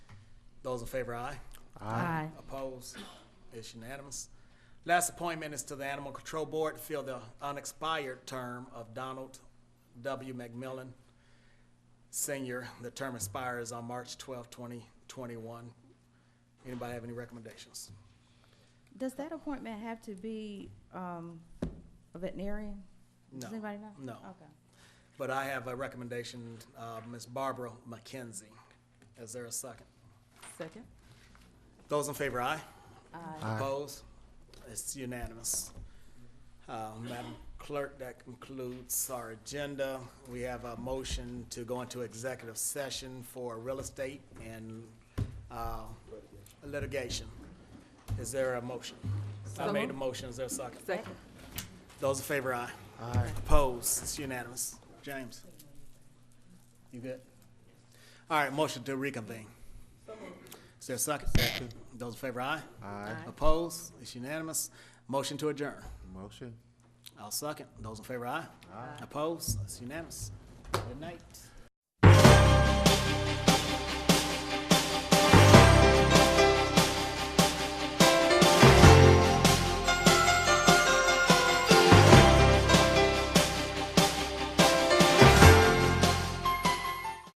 Those in favor, aye. Aye. Opposed? It's unanimous. Last appointment is to the Animal Control Board to fill the unexpired term of Donald W. McMillan, Senior. The term expires on March 12, 2021. Anybody have any recommendations? Does that appointment have to be, um, a veterinarian? No. Does anybody know? No. Okay. But I have a recommendation, uh, Ms. Barbara McKenzie. Is there a second? Second. Those in favor, aye. Aye. Opposed? It's unanimous. Uh, Madam Clerk, that concludes our agenda. We have a motion to go into executive session for real estate and uh, litigation. Is there a motion? I made a motion, is there a second? Second. Those in favor, aye. Aye. Opposed, it's unanimous. James? You good? All right, motion to reconvene. Is there a second? Those in favor, aye. Aye. Opposed, it's unanimous. Motion to adjourn. Motion. I'll second. Those in favor, aye. Aye. Opposed, it's unanimous. Good night.